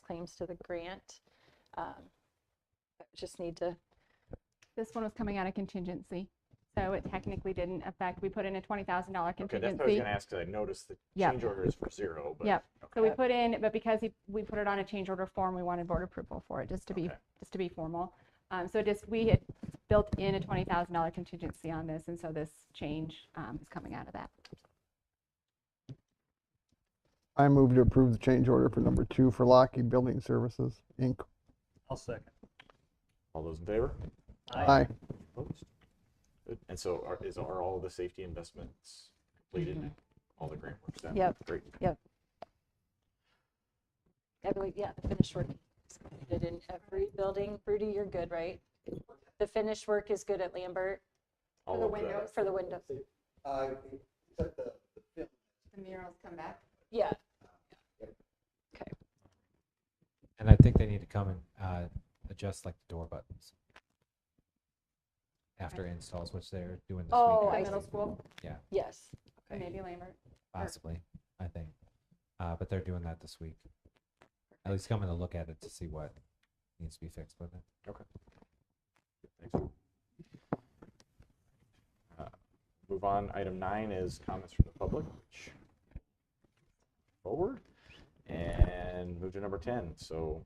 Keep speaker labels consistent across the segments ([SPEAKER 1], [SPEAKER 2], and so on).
[SPEAKER 1] claims to the grant. Um, but Just need to,
[SPEAKER 2] This one was coming out of contingency, so it technically didn't affect, we put in a twenty thousand dollar
[SPEAKER 3] Okay, that's what I was
[SPEAKER 2] contingency.
[SPEAKER 3] gonna ask, 'cause I noticed the
[SPEAKER 2] Yep.
[SPEAKER 3] change order is for zero, but.
[SPEAKER 2] Yep. So we
[SPEAKER 1] Okay.
[SPEAKER 2] put in, but because he- we put it on a change order form, we wanted board approval for it, just to be,
[SPEAKER 3] Okay.
[SPEAKER 2] just to be formal. Um, so just, we had built in a twenty thousand dollar contingency on this, and so this change, um, is coming out of that.
[SPEAKER 4] I move to approve the change order for number two for Lockheed Building Services, Inc.
[SPEAKER 5] I'll second.
[SPEAKER 3] All those in favor?
[SPEAKER 4] Aye.
[SPEAKER 3] Opposed? Good. And so are, is, are all the safety investments completed? All the grant work's done?
[SPEAKER 1] Yep.
[SPEAKER 3] Great.
[SPEAKER 1] I believe, yeah, the finished work is completed in every building. Rudy, you're good, right? The finished work is good at Lambert
[SPEAKER 3] All of the,
[SPEAKER 1] for the windows.
[SPEAKER 6] Uh, except the, the film,
[SPEAKER 2] The murals come back?
[SPEAKER 1] Yeah,
[SPEAKER 7] And I think they need to come and uh, adjust like the door buttons after installs, which they're doing this
[SPEAKER 1] Oh,
[SPEAKER 7] weekend.
[SPEAKER 1] I
[SPEAKER 2] Middle
[SPEAKER 1] see.
[SPEAKER 2] school,
[SPEAKER 1] yes. Okay.
[SPEAKER 2] maybe Lambert.
[SPEAKER 7] Possibly, I think. Uh, but they're doing that this week. At least coming to look at it to see what needs to be fixed uh, with it.
[SPEAKER 3] Thanks. Uh, Move on, item nine is comments from the public, which forward, and move to number ten, so,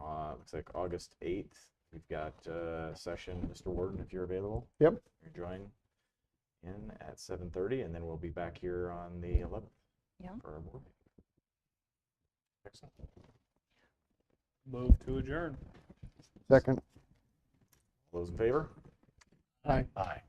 [SPEAKER 3] uh, looks like August eighth, we've got, uh, session, Mr. Warden, if you're available.
[SPEAKER 4] Yep.
[SPEAKER 3] You're joining in at seven thirty, and then we'll be back here on the eleventh.
[SPEAKER 1] Yeah.
[SPEAKER 3] For our board. meeting. Excellent.
[SPEAKER 5] Move to adjourn.
[SPEAKER 4] Second.
[SPEAKER 3] All Those in favor?
[SPEAKER 4] Aye.
[SPEAKER 3] Aye.